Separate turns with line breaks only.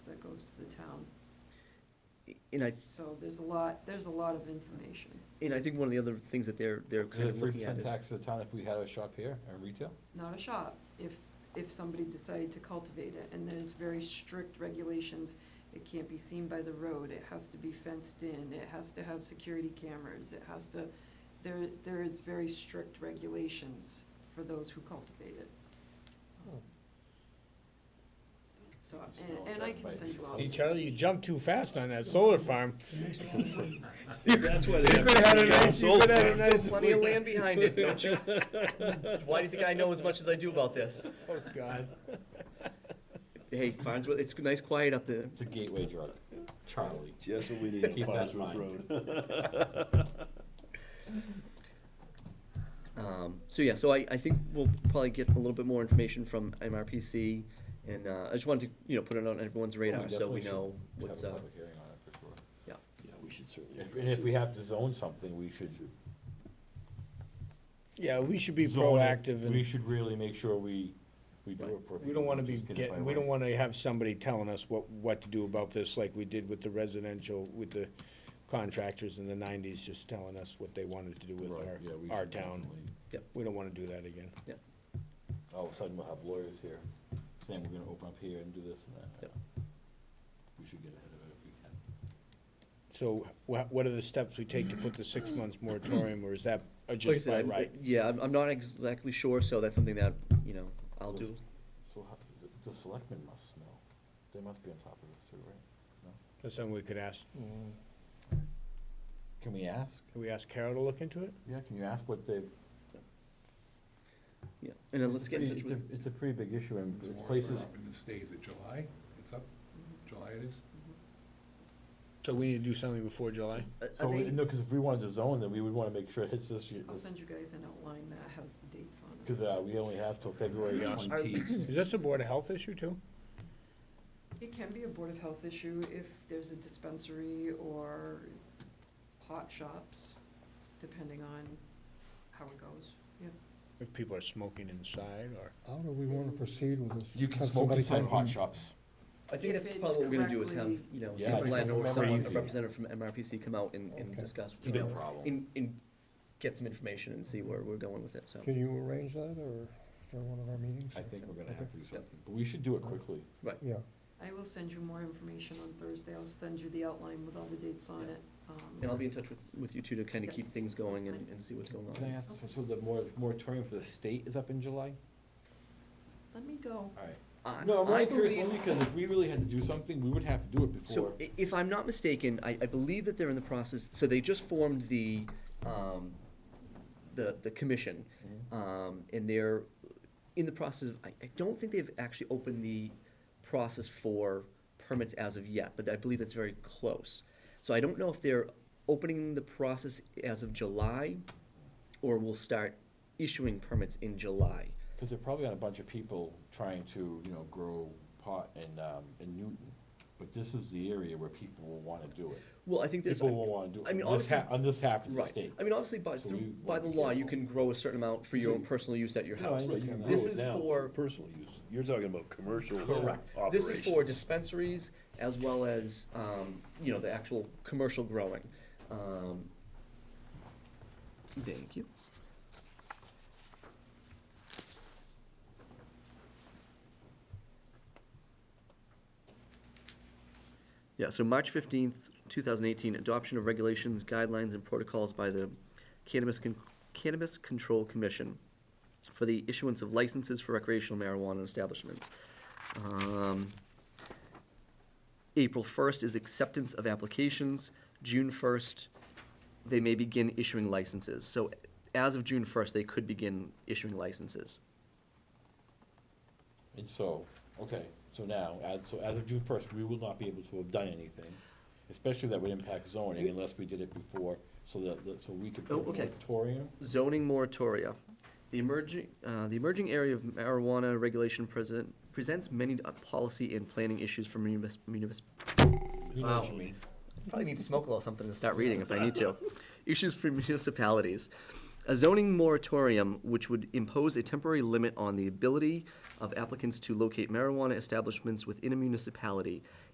that goes to the town.
And I,
So there's a lot, there's a lot of information.
and I think one of the other things that they're, they're kind of
three
looking at
percent
is.
tax to the town if we had a shop here, a retail?
Not a shop, if, if somebody decided to cultivate it, and there's very strict regulations. It can't be seen by the road, it has to be fenced in, it has to have security cameras, it has to, there, there is very strict regulations for those who cultivate it. So, and, and I can send you all.
See, Charlie, you jumped too fast on that solar farm.
That's why
They said had a nice, you
solar
could have had a
farm.
There's
nice.
still plenty of land behind it, don't you? Why do you think I know as much as I do about this?
Oh, God.
Hey, Farnsworth, it's nice quiet up there.
It's a gateway drug, Charlie.
Just what we need on
Keep that in
Farnsworth
mind.
Road.
Um, so yeah, so I, I think we'll probably get a little bit more information from MRPC, and uh, I just wanted to you know put it on everyone's radar so we
definitely should
know
Have
what's
a
up.
public hearing on it for sure.
Yeah, we should certainly.
If- And if we have to zone something, we should.
Yeah, we should be
zone it.
proactive
We
and
should really make sure we, we do
Right.
it for.
we don't wanna
people,
be
just get it by
getting, we don't
right.
wanna have somebody telling us what, what to do about this like we did with the residential, with the contractors in the nineties, just telling us what they wanted to do with
Right,
our,
yeah, we
our
should
town.
definitely-
We don't wanna do that again.
All of a sudden, we'll have lawyers here saying we're gonna open up here and do this and that.
Yep.
We should get ahead of it if we can.
So wha- what are the steps we take to put the six months moratorium, or is that uh,
Like I
just by
said, I-
right?
yeah, I'm, I'm not exactly sure, so that's something that you know I'll do.
So how, the, the selectmen must know. They must be on top of this too, right?
That's something we could ask,
Can we ask?
can we ask Carol to look into it?
Yeah, can you ask what they've?
Yeah, and then
It's
let's
a
get in
pretty-
touch
it's a-
with.
It's a pretty big issue and
It's
there's
more
places,
up in the States, is it July? It's up, July it is?
So we need to do something before July?
Are- are
so, we-
they-
no, cause if we wanted to zone, then we would wanna make sure it hits this year.
I'll
this-
send you guys an outline that has the dates on it.
Cause, uh, we only have till February
Are-
twentieth.
Is this a Board of Health issue too?
It can be a Board of Health issue if there's a dispensary or pot shops, depending on how it goes.
If people are smoking inside, or?
How do we want to proceed with this?
You can
Have
smoke
somebody
inside
come
hot
from-
shops.
I think
If
that's
it's
probably what we're gonna do is have,
correctly-
you know,
Yeah,
someone,
it's
land or
correctly
someone, a
crazy.
representative from MRPC come out and, and
Okay.
discuss,
It's a
you
big
know,
problem.
and, and get some information and see where we're going with it, so.
Can you arrange that, or for one of our meetings?
I think we're gonna have to do
Yep.
something, but we should do it quickly.
Yeah,
I will send you more information on Thursday. I'll send you the outline with all the dates on it. Um,
And I'll be in touch with, with you two to kinda
Yeah.
keep things going and,
Fine.
and see what's going
Can I
on.
ask, so the mor- moratorium for the state is up in July?
Let me go.
Alright.
I-
No, I'm
I
only curious,
believe-
only because if we really had to do something, we would have to do it before.
So i- if I'm not mistaken, I, I believe that they're in the process, so they just formed the, um, the, the commission.
Mhm.
Um, and they're in the process, of- I, I don't think they've actually opened the process for permits as of yet, but I believe that's very close. So I don't know if they're opening the process as of July, or will start issuing permits in July.
Because they're probably on a bunch of people trying to, you know, grow pot in, um, in Newton. But this is the area where people will wanna do it.
Well, I think there's.
People will wanna do
I
it,
mean,
on this
obviously-
half, on this half of the
Right,
state.
I mean, obviously, by,
So
through,
we
by
wanna
the
be
law, you
careful.
can grow a certain amount for your own
So-
personal use at your
No, I
house.
know, you can
This
do it
is
now
for-
Personal use. You're talking about commercial
Correct.
This
operations.
is for dispensaries as well as, um, you know, the actual commercial growing. Um, Thank you. Yeah, so March fifteenth, two thousand eighteen, adoption of regulations, guidelines, and protocols by the Cannabis Con- Cannabis Control Commission for the issuance of licenses for recreational marijuana establishments. Um, April first is acceptance of applications. June first, they may begin issuing licenses. So as of June first, they could begin issuing licenses.
And so, okay, so now, as, so as of June first, we will not be able to have done anything, especially that would impact zoning unless we did it before, so that, that- so we could put
Oh,
a
okay.
moratorium.
Zoning moratoria. The emerging, uh, the emerging area of marijuana regulation present, presents many uh, policy and planning issues for munis- munis-
You know what you mean?
Probably need to smoke a little something to start reading if I need to. Issues for municipalities. A zoning moratorium which would impose a temporary limit on the ability of applicants to locate marijuana establishments within a municipality